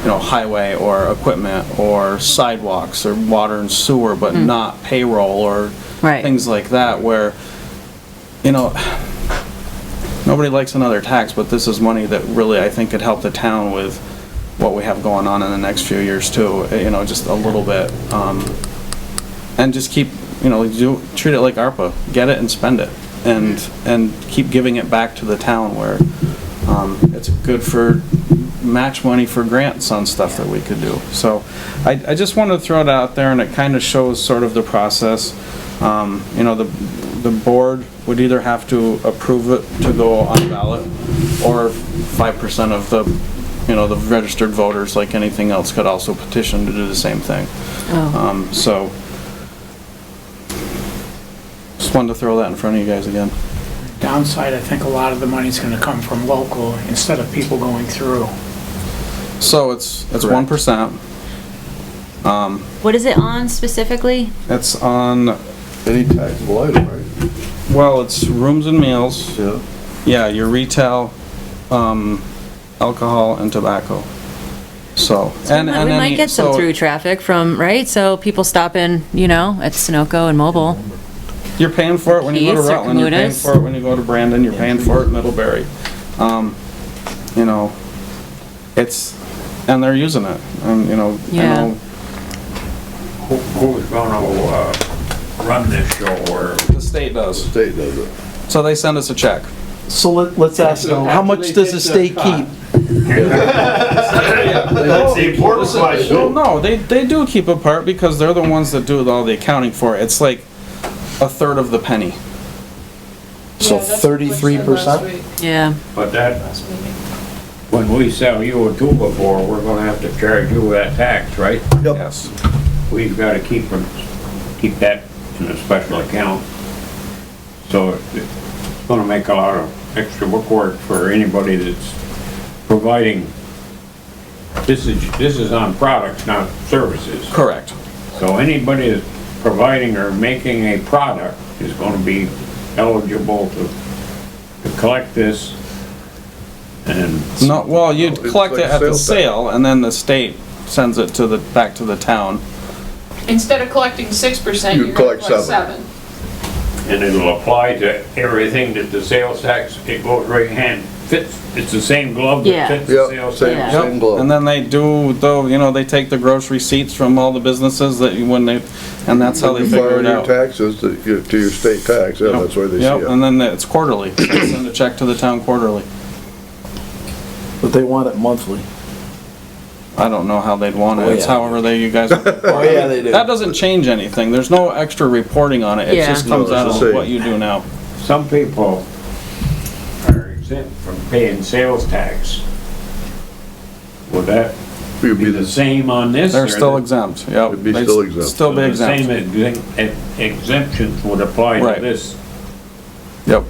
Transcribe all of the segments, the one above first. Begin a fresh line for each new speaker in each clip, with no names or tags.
you know, highway or equipment or sidewalks or water and sewer, but not payroll or
Right.
things like that where, you know, nobody likes another tax, but this is money that really I think could help the town with what we have going on in the next few years too, eh, you know, just a little bit. um, And just keep, you know, do, treat it like ARPA, get it and spend it. And, and keep giving it back to the town where um, it's good for match money for grants on stuff that we could do. So I, I just wanted to throw it out there and it kind of shows sort of the process. Um, you know, the, the board would either have to approve it to go on ballot or five percent of the, you know, the registered voters, like anything else, could also petition to do the same thing.
Oh,
Um, so just wanted to throw that in front of you guys again.
Downside, I think a lot of the money's gonna come from local instead of people going through.
So it's, it's one percent. Uh,
What is it on specifically?
It's on,
Any taxable item, right?
well, it's rooms and meals,
Yeah.
yeah, your retail, um, alcohol and tobacco. So, and,
We
and
might
any-
get some
so-
through traffic from, right, so people stopping, you know, at Sunoco and Mobile.
You're paying for it when you go to
Keys or
Rutland, you're paying
Kamutas.
for it when you go to Brandon, you're paying for it in Middlebury. Um, you know, it's, and they're using it, and, you know, I
Yeah.
know,
Who- Who's gonna, uh, run this show or
the state does.
State does it.
So they send us a check.
So let, let's ask uh, though, how much does the state keep?
That's the important
Well,
question.
no, they, they do keep a part because they're the ones that do all the accounting for it. It's like a third of the penny.
So thirty-three percent?
Yeah,
But that, when we sell you a tuba bore, we're gonna have to charge you that tax, right?
Yes.
We've gotta keep, it- keep that in a special account. So it's gonna make a lot of extra work for anybody that's providing. This is, this is on products, not services.
Correct.
So anybody that's providing or making a product is gonna be eligible to, to collect this. And
No, well, you'd
No, it's
collect it
like
at the
sales tax.
sale and then the state sends it to the, back to the town.
Instead of collecting six percent,
You
you're gonna
collect
collect
seven.
seven.
And it'll apply to everything that the sales tax, it goes right hand, fits, it's the same glove
Yeah.
that fits the
Yeah,
sales
same,
tax.
Yeah.
same
Yep. And
glove.
then they do, though, you know, they take the gross receipts from all the businesses that you, when they, and that's how they
You
figure
fire
it
your
out.
taxes to your, to your state tax, yeah,
Yep.
that's where they see
Yep, and
it.
then it's quarterly. They send a check to the town quarterly.
But they want it monthly.
I don't know how they'd want it.
Oh,
It's
yeah.
however they, you guys.
Oh, yeah, they do.
That doesn't change anything. There's no extra reporting on it. It
Yeah.
just comes
No, it's
out
the
of
same.
what you do now.
Some people are exempt from paying sales tax. Would that
You'd
be the same on this?
They're
or
still
the-
exempt, yep.
It'd be
They'd
still exempt.
Still be
The Same
exempt,
exemp- ex- exemptions would apply
Right.
to this.
yep,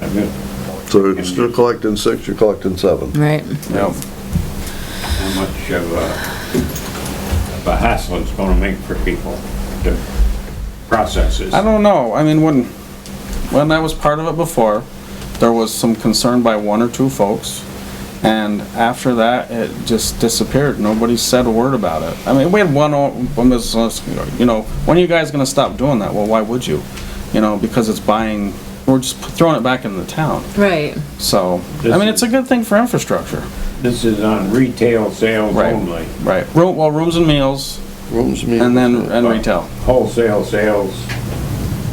I mean,
So instead of collecting six, you're collecting seven.
right.
yep.
How much of a, of a hassle it's gonna make for people to process this?
I don't know, I mean, when, when that was part of it before, there was some concern by one or two folks. And after that, it just disappeared. Nobody said a word about it. I mean, we had one, o- one business, you know, when are you guys gonna stop doing that? Well, why would you? You know, because it's buying, we're just throwing it back into the town.
Right.
So, I
This
mean,
is-
it's a good thing for infrastructure.
This is on retail sales
Right.
only.
Right. Room, well, rooms and meals,
Rooms, meals.
and then, and retail.
Wholesale sales,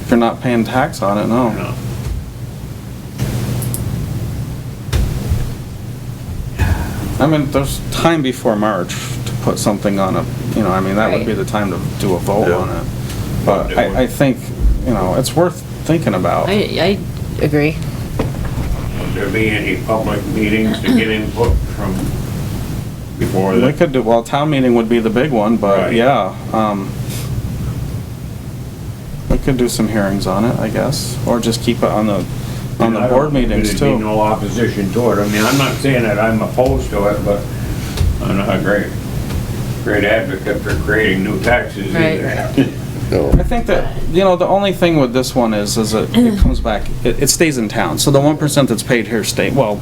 If you're not paying tax on it,
you
Oh, no.
know.
I mean, there's time before March to put something on a, you know, I mean, that would be
Right.
the time to do a vote
Yeah.
on it. But I, I think, you know, it's worth thinking about.
I, I agree.
Would there be any public meetings to get input from before
We
the,
could do, well, town meeting would be the big one, but
Right.
yeah, um, we could do some hearings on it, I guess, or just keep it on the, on the
I don't
board
think
meetings
there'd
too.
be no opposition to it. I mean, I'm not saying that I'm opposed to it, but I'm not a great, great advocate for creating new taxes
Right.
either.
No.
I think that, you know, the only thing with this one is, is it, it comes back, it, it stays in town. So the one percent that's paid here stay, well,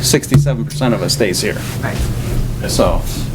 sixty-seven percent of it stays here. so.